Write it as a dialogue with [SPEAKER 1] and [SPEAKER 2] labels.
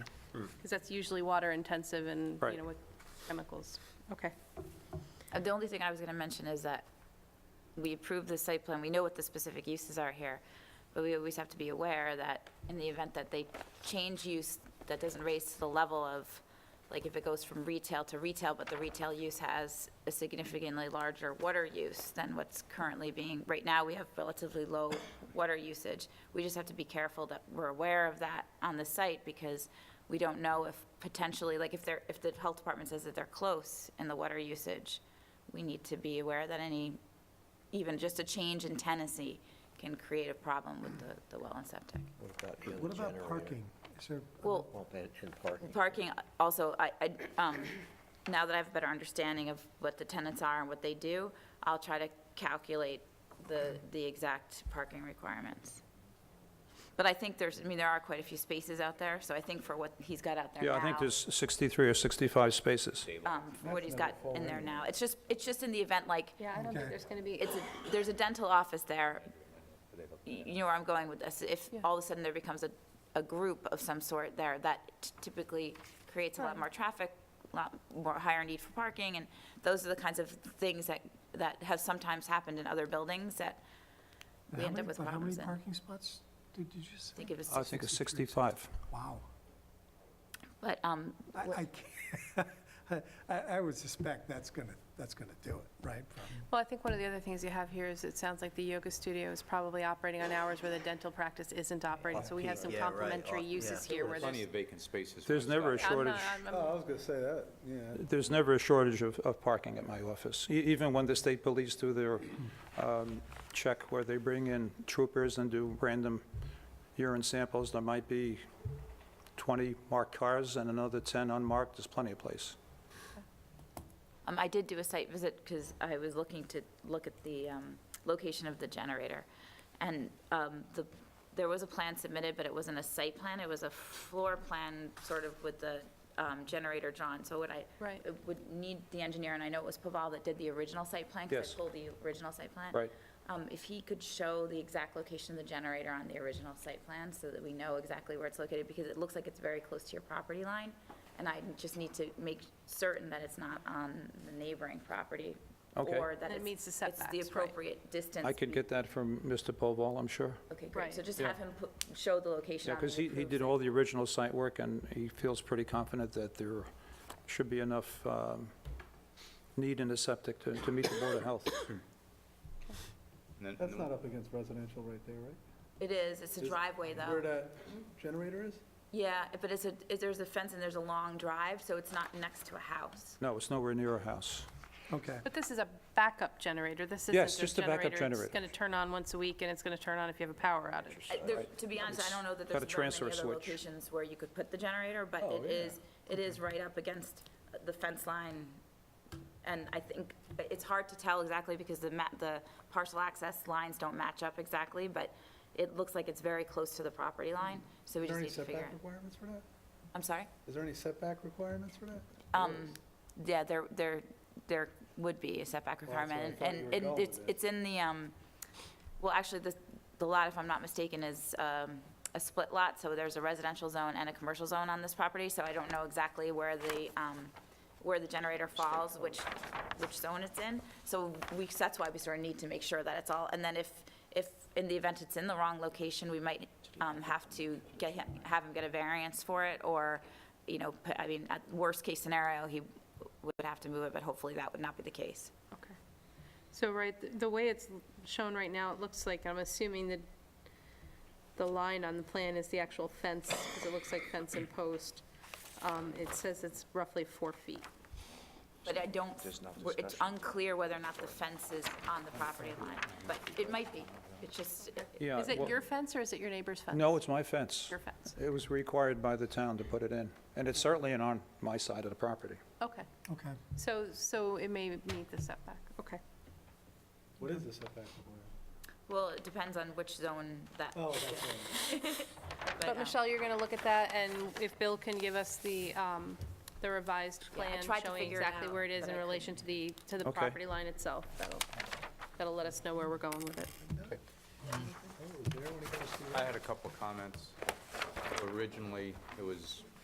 [SPEAKER 1] that's usually water intensive and,
[SPEAKER 2] Right.
[SPEAKER 1] you know, with chemicals.
[SPEAKER 3] Okay.
[SPEAKER 4] Uh, The only thing I was going to mention is that we approve the site plan, we know what the specific uses are here, but we always have to be aware that in the event that they change use, that doesn't raise to the level of, like if it goes from retail to retail, but the retail use has a significantly larger water use than what's currently being, right now, we have relatively low water usage. We just have to be careful that we're aware of that on the site because we don't know if potentially, like if they're, if the health department says that they're close in the water usage, we need to be aware that any, even just a change in Tennessee can create a problem with the, the well and septic.
[SPEAKER 5] What about the other
[SPEAKER 6] What about
[SPEAKER 5] generator?
[SPEAKER 6] parking? Is there, uh,
[SPEAKER 4] Well,
[SPEAKER 5] Well, and and parking.
[SPEAKER 4] parking also, I, I, um, now that I have a better understanding of what the tenants are and what they do, I'll try to calculate the, the exact parking requirements. But I think there's, I mean, there are quite a few spaces out there, so I think for what he's got out there now.
[SPEAKER 2] Yeah, I think there's 63 or 65 spaces.
[SPEAKER 4] um, from what he's got in there now. It's just, it's just in the event, like,
[SPEAKER 1] Yeah, I don't think
[SPEAKER 6] Okay.
[SPEAKER 1] there's going to be,
[SPEAKER 4] it's, a- there's a dental office there. Y- You know where I'm going with this. If all of a sudden there becomes a, a group of some sort there, that t- typically creates a lot more traffic, a lot more higher need for parking, and those are the kinds of things that, that have sometimes happened in other buildings that we
[SPEAKER 6] how
[SPEAKER 4] end
[SPEAKER 6] many,
[SPEAKER 4] up with
[SPEAKER 6] but how many
[SPEAKER 4] problems in. I
[SPEAKER 6] parking spots did did you say?
[SPEAKER 4] think it was,
[SPEAKER 2] I think it's 65.
[SPEAKER 6] Wow.
[SPEAKER 4] but, um,
[SPEAKER 6] I,
[SPEAKER 4] what-
[SPEAKER 6] I can't- I, I would suspect that's gonna, that's gonna do it, right? From-
[SPEAKER 1] well, I think one of the other things you have here is it sounds like the yoga studio is probably operating on hours where the dental practice isn't operating. So we have some
[SPEAKER 5] Yeah, right.
[SPEAKER 1] complementary
[SPEAKER 2] Oh,
[SPEAKER 5] Yeah.
[SPEAKER 1] uses here where there's.
[SPEAKER 7] Plenty of vacant spaces. for
[SPEAKER 2] There's never a
[SPEAKER 7] staff.
[SPEAKER 1] I'm
[SPEAKER 2] shortage,
[SPEAKER 1] not- I'm- I'm-
[SPEAKER 8] Oh, I was gonna say that, yeah.
[SPEAKER 2] there's never a shortage of, of parking at my office. E- Even when the state police do their um, check where they bring in troopers and do random urine samples, there might be 20 marked cars and another 10 unmarked, there's plenty of place.
[SPEAKER 4] Um, I did do a site visit because I was looking to look at the um, location of the generator. And um, the, there was a plan submitted, but it wasn't a site plan, it was a floor plan sort of with the um, generator drawn. So would I,
[SPEAKER 1] Right.
[SPEAKER 4] it would need the engineer, and I know it was Paval that did the original site plan. 'cause
[SPEAKER 2] Yes.
[SPEAKER 4] I pulled the original site plan.
[SPEAKER 2] Right.
[SPEAKER 4] Um, If he could show the exact location of the generator on the original site plan so that we know exactly where it's located, because it looks like it's very close to your property line. And I just need to make certain that it's not on the neighboring property.
[SPEAKER 2] Okay.
[SPEAKER 4] Or that
[SPEAKER 1] That
[SPEAKER 4] it's-
[SPEAKER 1] meets the setbacks, right.
[SPEAKER 4] It's the appropriate distance.
[SPEAKER 2] I could
[SPEAKER 4] be-
[SPEAKER 2] get that from Mr. Povall, I'm sure.
[SPEAKER 4] Okay, great. So
[SPEAKER 1] Right.
[SPEAKER 4] just
[SPEAKER 2] Yeah.
[SPEAKER 4] have him put- show the location
[SPEAKER 2] Yeah,
[SPEAKER 4] on the
[SPEAKER 2] because he, he
[SPEAKER 4] approved
[SPEAKER 2] did
[SPEAKER 4] site.
[SPEAKER 2] all the original site work, and he feels pretty confident that there should be enough um, need in the septic to, to meet the Board of Health.
[SPEAKER 7] And then-
[SPEAKER 8] That's not up against residential right there, right?
[SPEAKER 4] It is, it's a driveway, though.
[SPEAKER 8] Where that
[SPEAKER 4] Mm-hmm.
[SPEAKER 8] generator is?
[SPEAKER 4] Yeah, but it's a, it- there's a fence and there's a long drive, so it's not next to a house.
[SPEAKER 2] No, it's nowhere near a house.
[SPEAKER 6] Okay.
[SPEAKER 1] But this is a backup generator. This isn't
[SPEAKER 2] Yes,
[SPEAKER 1] this
[SPEAKER 2] just a backup generator.
[SPEAKER 1] It's going to turn on once a week, and it's going to turn on if you have a power outage.
[SPEAKER 4] I- there- To be honest, I don't know that
[SPEAKER 2] got
[SPEAKER 4] there's
[SPEAKER 2] a transfer
[SPEAKER 4] very many other
[SPEAKER 2] switch.
[SPEAKER 4] locations where you could put the generator, but
[SPEAKER 8] Oh,
[SPEAKER 4] it is, it is right up against uh, the fence line. And I think uh, it's hard to tell exactly because the ma, the parcel access lines don't match up exactly, but it looks like it's very close to the property line, so we
[SPEAKER 8] Is there
[SPEAKER 4] just
[SPEAKER 8] any
[SPEAKER 4] need to figure
[SPEAKER 8] setback
[SPEAKER 4] out.
[SPEAKER 8] requirements for that?
[SPEAKER 4] I'm sorry?
[SPEAKER 8] Is there any setback requirements for that?
[SPEAKER 4] Um, yeah, there, there, there would be a setback
[SPEAKER 8] that's where I
[SPEAKER 4] requirement,
[SPEAKER 8] thought you
[SPEAKER 4] and
[SPEAKER 8] were
[SPEAKER 4] and
[SPEAKER 8] going
[SPEAKER 4] it's,
[SPEAKER 8] with it.
[SPEAKER 4] it's in the, um, well, actually, the, the lot, if I'm not mistaken, is, um, a split lot, so there's a residential zone and a commercial zone on this property, so I don't know exactly where the, um, where the generator falls, which, which zone it's in, so we, that's why we sort of need to make sure that it's all, and then if, if, in the event it's in the wrong location, we might, um, have to get him, have him get a variance for it, or, you know, put- I mean, at worst case scenario, he would have to move it, but hopefully that would not be the case.
[SPEAKER 1] Okay. So right, th- the way it's shown right now, it looks like, I'm assuming that the line on the plan is the actual fence, because it looks like fence and post. Um, It says it's roughly four feet.
[SPEAKER 4] But I don't,
[SPEAKER 5] There's no
[SPEAKER 4] we're- it's
[SPEAKER 5] discussion.
[SPEAKER 4] unclear whether or not the fence is on the property line, but it might be. It's just,
[SPEAKER 2] Yeah.
[SPEAKER 1] Is it
[SPEAKER 2] well-
[SPEAKER 1] your fence or is it your neighbor's fence?
[SPEAKER 2] No, it's my fence.
[SPEAKER 1] Your fence.
[SPEAKER 2] It was required by the town to put it in, and it's certainly not on my side of the property.
[SPEAKER 1] Okay,
[SPEAKER 6] Okay.
[SPEAKER 1] so, so it may meet the setback, okay.
[SPEAKER 8] What is the setback requirement?
[SPEAKER 4] well, it depends on which zone that,
[SPEAKER 8] Oh, that's right.
[SPEAKER 4] but,
[SPEAKER 1] But
[SPEAKER 4] um,
[SPEAKER 1] Michelle, you're going to look at that, and if Bill can give us the, um, the revised
[SPEAKER 4] Yeah, I
[SPEAKER 1] plan
[SPEAKER 4] tried to
[SPEAKER 1] showing
[SPEAKER 4] figure it
[SPEAKER 1] exactly
[SPEAKER 4] out,
[SPEAKER 1] where it is
[SPEAKER 4] but
[SPEAKER 1] in
[SPEAKER 4] I
[SPEAKER 1] relation to the, to the
[SPEAKER 2] Okay.
[SPEAKER 1] property line itself, that'll, that'll let us know where we're going with it.
[SPEAKER 7] I had a couple of comments. Originally, it was